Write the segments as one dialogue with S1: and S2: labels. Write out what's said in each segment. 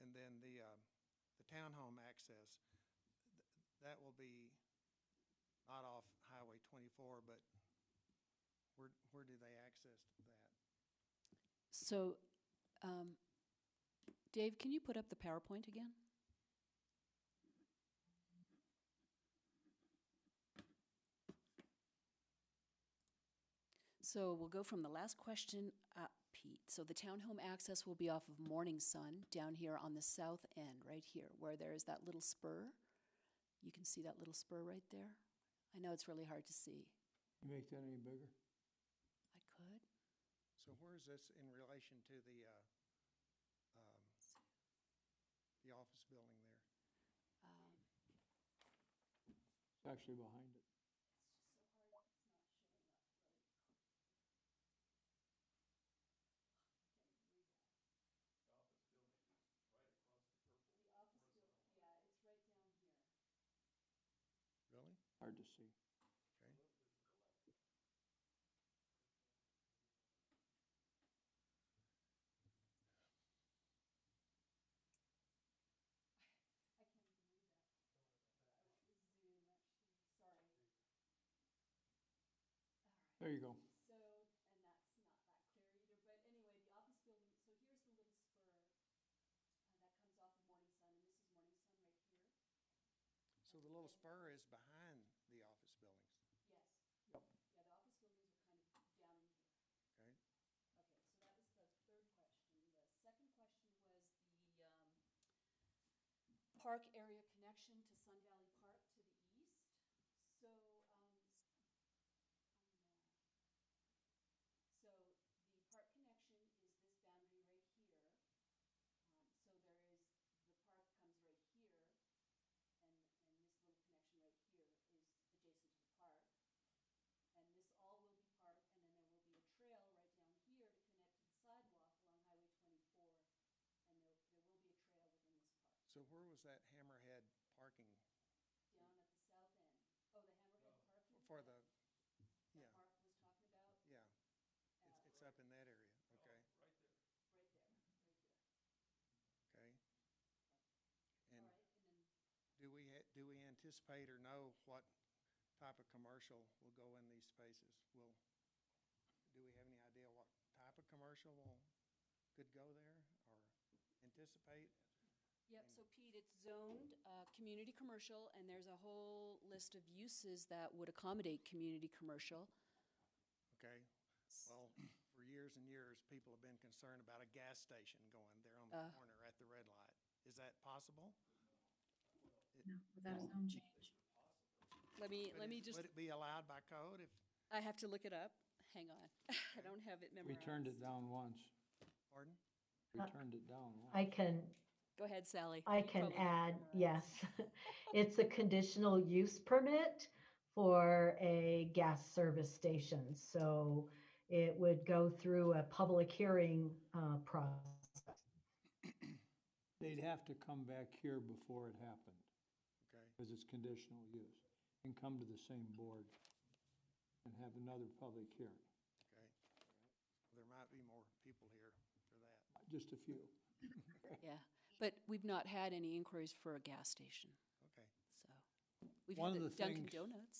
S1: um, townhome access, th- that will be not off Highway twenty-four, but where, where do they access that?
S2: So, um, Dave, can you put up the PowerPoint again? So we'll go from the last question up, Pete. So the townhome access will be off of Morning Sun down here on the south end, right here, where there is that little spur. You can see that little spur right there. I know it's really hard to see.
S3: You make that any bigger?
S2: I could.
S1: So where is this in relation to the, uh, um, the office building there?
S2: um,
S3: It's actually behind it.
S1: Really?
S3: Hard to see.
S1: Okay.
S3: There you go.
S2: So, and that's not that clear either, but anyway, the office building, so here's the little spur uh, that comes off of Morning Sun, and this is Morning Sun right here.
S1: So the little spur is behind the office buildings,
S2: Yes.
S3: Yep.
S2: Yeah, the office buildings are kind of down in here.
S1: okay?
S2: Okay, so that was the third question. The second question was the, um, park area connection to Sun Valley Park to the east. So, um, on the- so the park connection is this boundary right here. Um, so there is, the park comes right here, and, and this little connection right here is adjacent to the park. And this all will be park, and then there will be a trail right down here to connect to the sidewalk along Highway twenty-four. And there, there will be a trail within this park,
S1: So where was that hammerhead parking
S2: down at the south end. Oh, the Hammerhead parking?
S1: for
S2: that-
S1: the, yeah,
S2: That Mark was talking about,
S1: yeah, it's,
S2: uh,
S1: it's up in that area, okay,
S2: right there, right here.
S1: okay? And
S2: All right, and then,
S1: do we, ha- do we anticipate or know what type of commercial will go in these spaces? Will, do we have any idea what type of commercial will, could go there or anticipate?
S2: yep, so Pete, it's zoned, uh, community commercial, and there's a whole list of uses that would accommodate community commercial.
S1: Okay, well, for years and years, people have been concerned about a gas station going there on the
S2: Uh.
S1: corner at the red light. Is that possible?
S4: No,
S2: Uh,
S4: without a zone change.
S2: Let me,
S1: Would
S2: let
S1: it-
S2: me just,
S1: Would it be allowed by code if,
S2: I have to look it up, hang on, I don't have it
S3: We
S2: memorized.
S3: turned it down once.
S1: pardon?
S3: We turned it down once.
S5: I can,
S2: Go ahead, Sally.
S5: I
S2: You
S5: can
S2: probably have it
S5: add,
S2: memorized.
S5: yes. It's a conditional use permit for a gas service station. So it would go through a public hearing uh, process.
S3: They'd have to come back here before it happened,
S1: Okay,
S3: because it's conditional use, and come to the same board and have another public hearing,
S1: okay. There might be more people here for that.
S3: just a few.
S2: Yeah, but we've not had any inquiries for a gas station,
S1: Okay,
S2: so. We've
S3: One of
S2: had the
S3: the
S2: Dunkin'
S3: things-
S2: Donuts.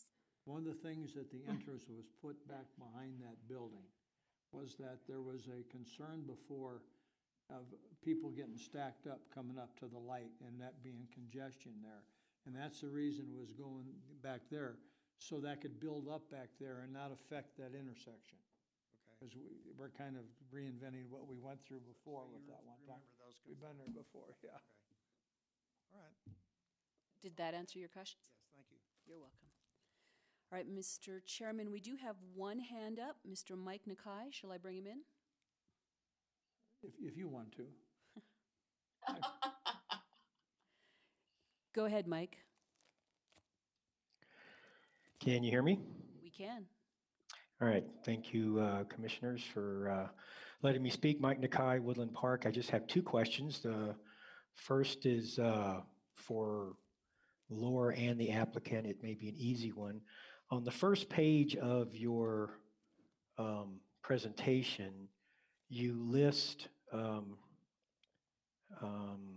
S3: One of the things that the interest was put back behind that building was that there was a concern before of people getting stacked up coming up to the light and that being congestion there. And that's the reason was going back there, so that could build up back there and not affect that intersection.
S1: okay.
S3: Because we, we're kind of reinventing what we went through before
S1: So
S3: with
S1: you
S3: that one time.
S1: Remember those
S3: We've
S1: concerns,
S3: been there before, yeah.
S1: okay. All right,
S2: Did that answer your questions?
S1: yes, thank you.
S2: You're welcome. All right, Mr. Chairman, we do have one hand up, Mr. Mike Nakai. Shall I bring him in?
S3: If, if you want to.
S2: Go ahead, Mike.
S6: Can you hear me?
S2: We can.
S6: All right. Thank you, uh, Commissioners, for uh, letting me speak. Mike Nakai, Woodland Park. I just have two questions. The first is uh, for Laura and the applicant. It may be an easy one. On the first page of your um, presentation, you list um, um,